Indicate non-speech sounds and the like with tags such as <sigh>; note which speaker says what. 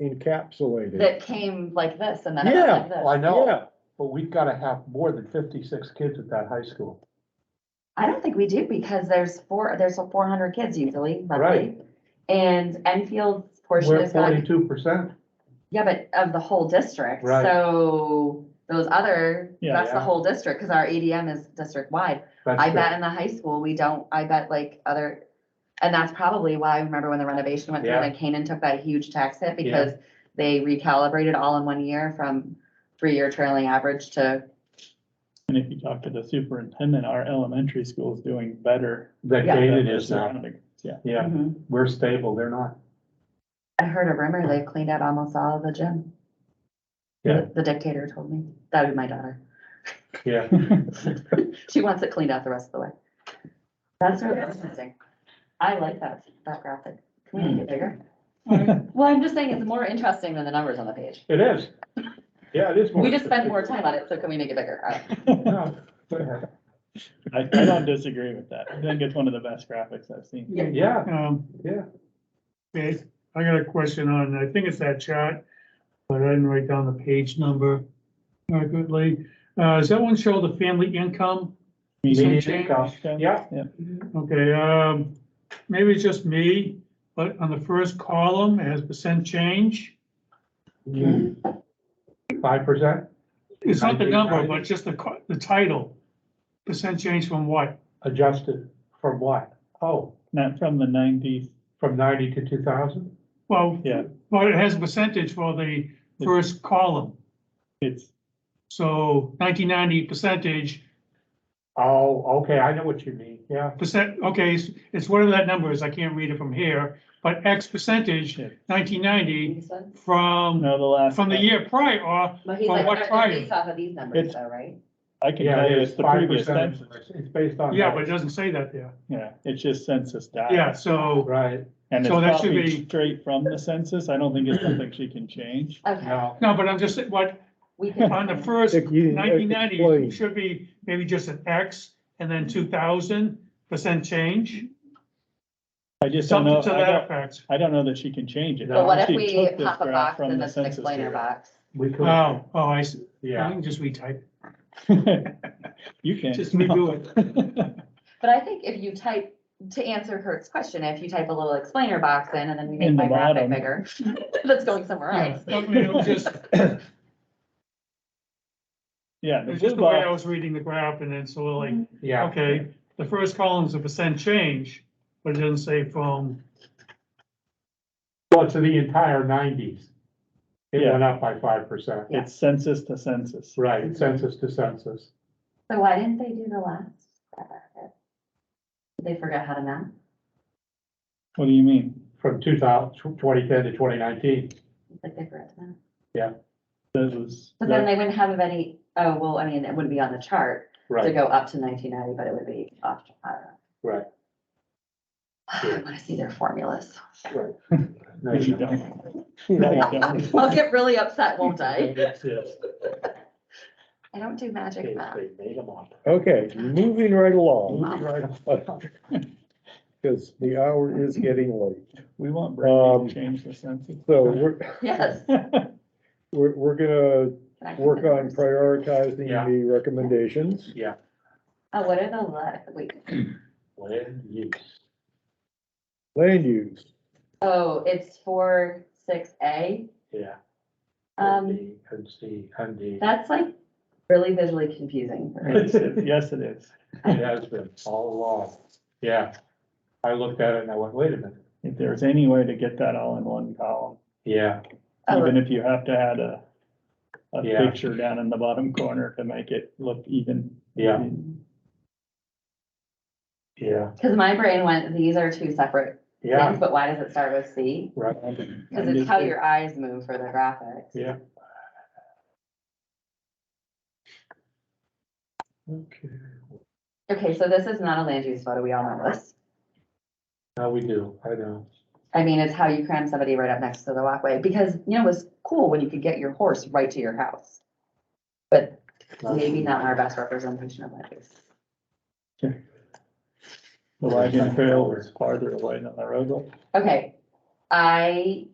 Speaker 1: encapsulated.
Speaker 2: that came like this and then it
Speaker 1: Yeah,
Speaker 2: went
Speaker 3: Well,
Speaker 2: like
Speaker 3: I
Speaker 2: this.
Speaker 3: know,
Speaker 1: yeah,
Speaker 3: but we've gotta have more than fifty-six kids at that high school.
Speaker 2: I don't think we do because there's four, there's four hundred kids usually, roughly.
Speaker 3: Right.
Speaker 2: And Enfield's portion
Speaker 3: We're
Speaker 2: is not,
Speaker 3: forty-two percent.
Speaker 2: yeah, but of the whole district,
Speaker 3: Right.
Speaker 2: so those other,
Speaker 4: Yeah,
Speaker 2: that's the
Speaker 3: yeah.
Speaker 2: whole district, cause our ADM is district wide. I bet in the high school, we don't, I bet like other, and that's probably why, I remember when the renovation went through
Speaker 3: Yeah.
Speaker 2: and Canaan took that huge tax hit
Speaker 3: Yeah.
Speaker 2: because they recalibrated all in one year from three-year trailing average to,
Speaker 4: And if you talk to the superintendent, our elementary school is doing better.
Speaker 3: That
Speaker 2: Yeah.
Speaker 4: than
Speaker 3: Canaan
Speaker 4: the
Speaker 3: is now,
Speaker 4: surrounding- Yeah,
Speaker 3: yeah,
Speaker 2: Mhm.
Speaker 3: we're stable, they're not.
Speaker 2: I heard a rumor they cleaned out almost all of the gym.
Speaker 3: Yeah.
Speaker 2: The dictator told me, that would be my daughter.
Speaker 3: Yeah,
Speaker 2: She wants it cleaned out the rest of the way. That's really interesting. I like that, that graphic. Can we make it bigger? <laughs> Well, I'm just saying it's more interesting than the numbers on the page.
Speaker 3: it is. Yeah, it is.
Speaker 2: We just spent more time on it, so can we make it bigger? I-
Speaker 3: No, go ahead.
Speaker 4: <laughs> I, I don't disagree with that. I think it's one of the best graphics I've seen.
Speaker 3: Yeah,
Speaker 5: Um,
Speaker 3: yeah,
Speaker 5: okay, I got a question on, I think it's that chart, but I didn't write down the page number accurately. Uh, does that one show the family income?
Speaker 4: Median
Speaker 3: Median income.
Speaker 4: income.
Speaker 3: yeah,
Speaker 5: Okay, um, maybe it's just me, but on the first column, it has percent change.
Speaker 3: five percent,
Speaker 5: It's not the number, but just the, co- the title. Percent change from what?
Speaker 3: adjusted from what? Oh,
Speaker 4: Not from the nineties,
Speaker 3: from ninety to two thousand?
Speaker 5: Well,
Speaker 4: Yeah.
Speaker 5: well, it has a percentage for the first column.
Speaker 4: it's,
Speaker 5: So nineteen ninety percentage,
Speaker 3: Oh, okay, I know what you mean, yeah,
Speaker 5: percent, okay, it's, it's whatever that number is, I can't read it from here, but X percentage,
Speaker 4: Yeah.
Speaker 5: nineteen ninety
Speaker 2: These ones?
Speaker 5: from,
Speaker 4: no, the last.
Speaker 5: from the
Speaker 4: one.
Speaker 5: year prior, or,
Speaker 2: But he's
Speaker 5: From
Speaker 2: like,
Speaker 5: what
Speaker 2: they're- they're
Speaker 5: prior?
Speaker 2: based off of these numbers
Speaker 4: It's-
Speaker 2: though, right?
Speaker 4: I can
Speaker 3: yeah,
Speaker 4: tell you
Speaker 3: it's
Speaker 4: it's the
Speaker 3: five
Speaker 4: previous
Speaker 3: percent,
Speaker 4: census.
Speaker 3: it's based on.
Speaker 5: yeah,
Speaker 3: that.
Speaker 5: but it doesn't say that there.
Speaker 4: Yeah, it's just census data.
Speaker 5: Yeah, so,
Speaker 3: Right,
Speaker 4: And it's
Speaker 5: so that should
Speaker 4: probably
Speaker 5: be-
Speaker 4: straight from the census. I don't think it's something she can change.
Speaker 2: Okay.
Speaker 3: now,
Speaker 5: no, but I'm just, saying, what,
Speaker 2: we can-
Speaker 5: on the first
Speaker 1: If you
Speaker 5: nineteen
Speaker 1: explain.
Speaker 5: ninety, should be maybe just an X, and then two thousand percent change,
Speaker 4: I just don't know,
Speaker 5: something
Speaker 4: I
Speaker 5: to that
Speaker 4: don't,
Speaker 5: effect.
Speaker 4: I don't know that she can change it.
Speaker 2: So what if
Speaker 4: She
Speaker 2: we
Speaker 4: took this
Speaker 2: pop a
Speaker 4: graph
Speaker 2: box
Speaker 4: from
Speaker 2: in
Speaker 4: the
Speaker 2: this
Speaker 4: census
Speaker 2: explainer
Speaker 4: bureau.
Speaker 2: box?
Speaker 3: we could,
Speaker 5: Oh, oh, I see, I
Speaker 3: yeah,
Speaker 5: can just retype,
Speaker 4: <laughs> You can.
Speaker 5: just redo it.
Speaker 4: <laughs>
Speaker 2: But I think if you type, to answer Kurt's question, if you type a little explainer box in and then we make
Speaker 4: In the
Speaker 2: my graphic
Speaker 4: bottom.
Speaker 2: bigger, <laughs> that's going somewhere
Speaker 5: Yeah,
Speaker 2: else.
Speaker 5: I mean, it
Speaker 4: <laughs>
Speaker 5: was just, it
Speaker 4: Yeah, the
Speaker 5: was
Speaker 4: blue
Speaker 5: just the way I
Speaker 4: box,
Speaker 5: was reading the graph, and then so like,
Speaker 3: yeah.
Speaker 5: Okay, the first column's a percent change, but it doesn't say from,
Speaker 3: Well, to the entire nineties. It
Speaker 4: Yeah.
Speaker 3: went up by five percent,
Speaker 2: Yeah.
Speaker 4: it's census to census.
Speaker 3: right, census to census.
Speaker 2: So why didn't they do the last? Did They forgot how to map?
Speaker 4: What do you mean?
Speaker 3: from 2000 2010 to twenty nineteen.
Speaker 2: Like they forgot to map.
Speaker 4: That was,
Speaker 2: But then they wouldn't have any, oh, well, I mean, it wouldn't be on the chart to
Speaker 3: Right,
Speaker 2: go up to nineteen ninety, but it would be off, I don't know.
Speaker 3: right,
Speaker 2: <sighs> I wanna see their formulas. <laughs>
Speaker 3: right. No,
Speaker 4: you
Speaker 3: you
Speaker 1: <laughs>
Speaker 3: don't.
Speaker 4: don't. No, you don't.
Speaker 2: I'll get really upset,
Speaker 3: <laughs>
Speaker 2: won't I?
Speaker 3: It's- it's-
Speaker 2: I don't do magic math.
Speaker 3: They made 'em up.
Speaker 1: Okay, moving right along,
Speaker 3: Moving right up.
Speaker 1: <laughs> because the hour is getting late.
Speaker 4: We want Brady
Speaker 1: Um,
Speaker 4: to change the census.
Speaker 1: So we're,
Speaker 2: Yes.
Speaker 1: we're, we're gonna
Speaker 2: Can I
Speaker 1: work on
Speaker 2: fix it?
Speaker 1: prioritizing
Speaker 3: Yeah.
Speaker 1: the recommendations.
Speaker 3: Yeah.
Speaker 2: Oh, what are the, le- wait,
Speaker 3: Land use.
Speaker 1: Land use,
Speaker 2: oh, it's four, six, A.
Speaker 3: Yeah.
Speaker 2: Um,
Speaker 3: And the- and C, and D.
Speaker 2: that's like really visually
Speaker 3: <laughs>
Speaker 2: confusing. for me.
Speaker 4: Yes, it- yes, it is.
Speaker 3: It has been all along, yeah. I looked at it and I went, wait a minute,
Speaker 4: If there's any way to get that all in one column,
Speaker 3: yeah,
Speaker 2: Oh,
Speaker 4: even if you have to add a, a
Speaker 3: Yeah.
Speaker 4: picture down in the bottom corner to make it look even.
Speaker 3: yeah, yeah,
Speaker 2: Cause my brain went, these are two separate
Speaker 3: yeah,
Speaker 2: things, but why does it start with C?
Speaker 3: right,
Speaker 2: Cause it's how your eyes move for the graphics.
Speaker 3: yeah. Okay,
Speaker 2: Okay, so this is not a land use photo, we all know this.
Speaker 3: now we do, I know.
Speaker 2: I mean, it's how you cram somebody right up next to the walkway, because, you know, it was cool when you could get your horse right to your house. But maybe not our best representation of that is.
Speaker 4: The wagon trail was farther away than the road. was.
Speaker 2: Okay, I